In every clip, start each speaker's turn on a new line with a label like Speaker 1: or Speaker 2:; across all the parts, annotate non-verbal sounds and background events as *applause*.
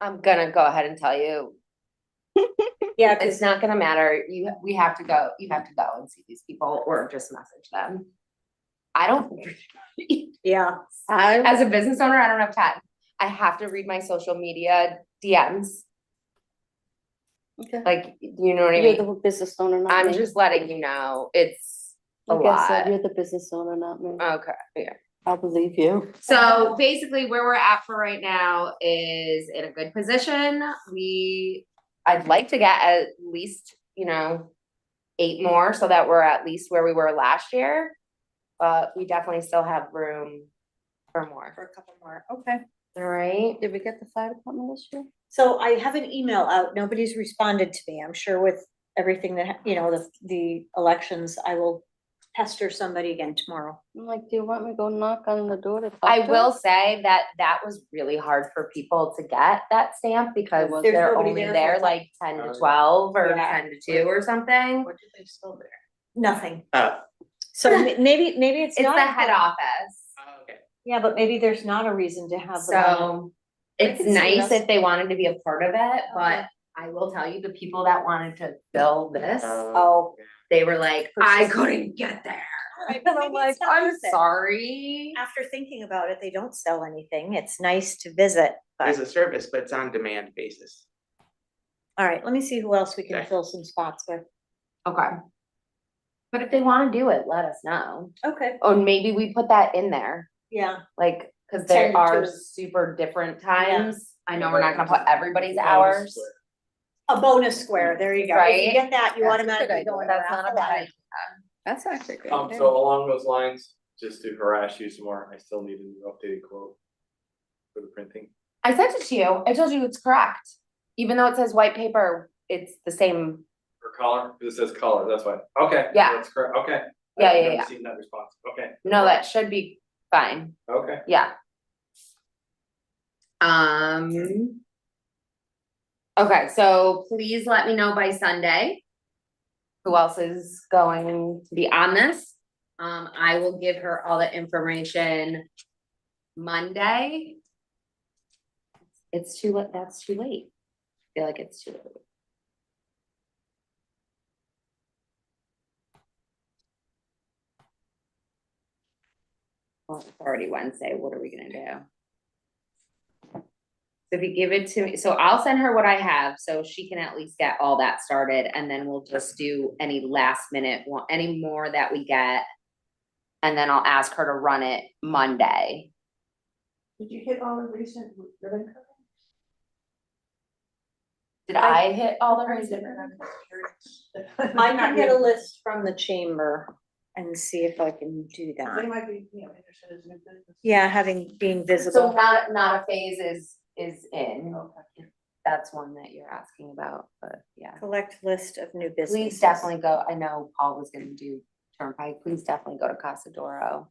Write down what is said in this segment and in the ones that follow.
Speaker 1: I'm gonna go ahead and tell you,
Speaker 2: Yeah,
Speaker 1: it's not gonna matter, you, we have to go, you have to go and see these people or just message them. I don't, *laughs*
Speaker 2: yeah.
Speaker 1: as a business owner, I don't have time, I have to read my social media DMs,
Speaker 3: Okay.
Speaker 1: like, you know what I
Speaker 3: You're the
Speaker 1: mean?
Speaker 3: business owner, not
Speaker 1: I'm
Speaker 3: me.
Speaker 1: just letting you know, it's a
Speaker 3: Like I said,
Speaker 1: lot.
Speaker 3: You're the business owner, not me.
Speaker 1: Okay, yeah.
Speaker 3: I'll believe you.
Speaker 1: So basically, where we're at for right now is in a good position. We, I'd like to get at least, you know, eight more so that we're at least where we were last year. But we definitely still have room for more.
Speaker 2: For a couple more, okay.
Speaker 1: All right.
Speaker 3: Did we get the fire department this year?
Speaker 2: So I have an email out, nobody's responded to me, I'm sure with everything that, hap- you know, the, the elections, I will pester somebody again tomorrow.
Speaker 3: I'm like, do you want me to go knock on the door to talk
Speaker 1: I
Speaker 3: to
Speaker 1: will
Speaker 3: her?
Speaker 1: say that that was really hard for people to get that stamp because
Speaker 3: was.
Speaker 2: There's
Speaker 1: they're
Speaker 2: nobody
Speaker 1: only
Speaker 2: there for
Speaker 1: there
Speaker 2: that.
Speaker 1: like ten
Speaker 4: Oh,
Speaker 1: to
Speaker 4: yeah.
Speaker 1: twelve or
Speaker 2: Yeah.
Speaker 1: ten to two or something.
Speaker 4: What did they spell there?
Speaker 2: Nothing,
Speaker 4: Oh,
Speaker 2: so ma- maybe, maybe it's
Speaker 1: It's the
Speaker 2: not.
Speaker 1: head office.
Speaker 4: okay.
Speaker 2: Yeah, but maybe there's not a reason to have them on it.
Speaker 1: So it's
Speaker 2: can see
Speaker 1: nice
Speaker 2: this.
Speaker 1: if they wanted to be a part of it, but
Speaker 2: Okay.
Speaker 1: I will tell you, the people that wanted to fill this,
Speaker 4: uh,
Speaker 2: Oh.
Speaker 1: they were like, I couldn't get there.
Speaker 2: Right,
Speaker 1: *laughs* And
Speaker 2: maybe
Speaker 1: I'm like,
Speaker 2: it's not
Speaker 1: I'm
Speaker 2: worth it.
Speaker 1: sorry.
Speaker 2: After thinking about it, they don't sell anything, it's nice to visit,
Speaker 4: It's a
Speaker 2: but,
Speaker 4: service, but it's on demand basis.
Speaker 2: all right, let me see who else we can
Speaker 4: Okay.
Speaker 2: fill some spots with.
Speaker 1: Okay. But if they wanna do it, let us know.
Speaker 2: Okay.
Speaker 1: Or maybe we put that in there,
Speaker 2: Yeah,
Speaker 1: like, cause
Speaker 2: 10
Speaker 1: there
Speaker 2: to
Speaker 1: are
Speaker 2: 2.
Speaker 1: super different times. I know we're not gonna put everybody's
Speaker 4: Bonus
Speaker 1: hours.
Speaker 4: square.
Speaker 2: a bonus square, there you go, if you
Speaker 1: Right?
Speaker 2: get that, you
Speaker 3: That's a good
Speaker 2: automatically go in.
Speaker 1: That's not a bad
Speaker 3: That's actually great.
Speaker 5: Um, so along those lines, just to harass you some more, I still need a new updated quote for the printing.
Speaker 1: I sent it to you. I told you it's correct. Even though it says white paper, it's the same.
Speaker 5: Or color, because it says color, that's why, okay.
Speaker 1: Yeah.
Speaker 5: That's correct, okay.
Speaker 1: Yeah,
Speaker 5: I've
Speaker 1: yeah,
Speaker 5: never
Speaker 1: yeah.
Speaker 5: Seen that response, okay,
Speaker 1: No, that should be fine.
Speaker 5: okay.
Speaker 1: Yeah. Um. Okay, so please let me know by Sunday. Who else is going to be on this? Um, I will give her all the information Monday. It's too late, that's too late. I Feel like it's too late. Well, it's already Wednesday, what are we gonna do? So if you give it to me, so I'll send her what I have, so she can at least get all that started, and then we'll just do any last minute, one- any more that we get. And then I'll ask her to run it Monday.
Speaker 6: Did you hit all the recent ribbon cutting?
Speaker 1: Did I hit all the
Speaker 6: Or is
Speaker 1: reason?
Speaker 6: it- I'm just curious.
Speaker 2: I can
Speaker 6: *laughs*
Speaker 2: get a list from the chamber and see if I can do
Speaker 6: They
Speaker 2: that.
Speaker 6: might be, you know, interested in new business.
Speaker 2: Yeah, having, being
Speaker 1: So
Speaker 2: visible.
Speaker 1: not, not a phase is, is in,
Speaker 6: Okay.
Speaker 1: that's one that you're asking about, but yeah.
Speaker 2: Collect list of new businesses.
Speaker 1: Please definitely go, I know Paul was gonna do Turnpike, please definitely go to Casa Doro.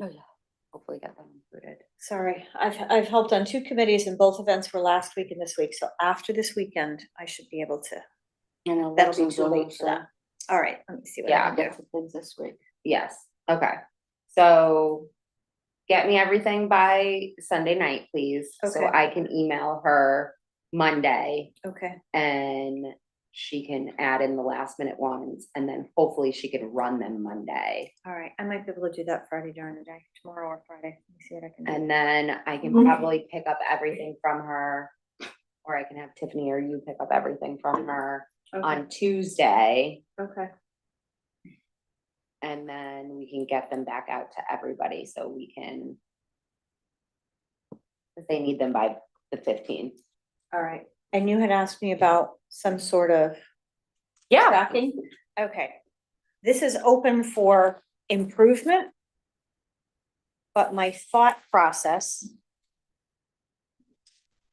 Speaker 3: Oh, yeah.
Speaker 1: Hopefully get them included.
Speaker 2: Sorry, I've, I've helped on two committees and both events were last week and this week, so after this weekend, I should be able to.
Speaker 3: And I'll let
Speaker 2: That'll
Speaker 3: you
Speaker 2: be too
Speaker 3: know,
Speaker 2: late for
Speaker 3: so
Speaker 2: that. All right, let me see what
Speaker 1: Yeah.
Speaker 2: I
Speaker 3: I'll
Speaker 2: can do.
Speaker 3: get the things this week.
Speaker 1: Yes, okay, so get me everything by Sunday night, please, so
Speaker 2: Okay.
Speaker 1: I can email her Monday.
Speaker 2: Okay,
Speaker 1: And she can add in the last minute ones, and then hopefully she can run them Monday.
Speaker 2: all right, I might be able to do that Friday during the day, tomorrow or Friday, let me see what I can do.
Speaker 1: And then I can
Speaker 2: Mm-hmm.
Speaker 1: probably pick up everything from her. Or I can have Tiffany or you pick up everything from her
Speaker 2: Okay,
Speaker 1: on Tuesday.
Speaker 2: okay,
Speaker 1: And then we can get them back out to everybody so we can. 'cause They need them by the fifteenth.
Speaker 2: all right. And you had asked me about some sort of Tracking? Okay. This is open for improvement. But my thought process.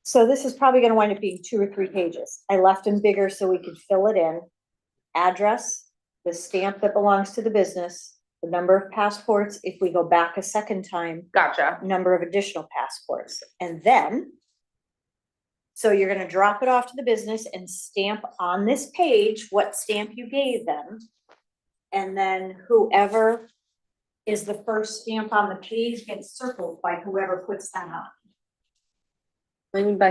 Speaker 2: So this is probably gonna wind up being two or three pages. I left them bigger so we could fill it in. Address, the stamp that belongs to the business, the number of passports, if we go back a second time,
Speaker 1: Gotcha.
Speaker 2: number of additional passports, and then. So you're gonna drop it off to the business and stamp on this page what stamp you gave them. And then whoever is the first stamp on the page gets circled by whoever puts that on.
Speaker 3: I mean, by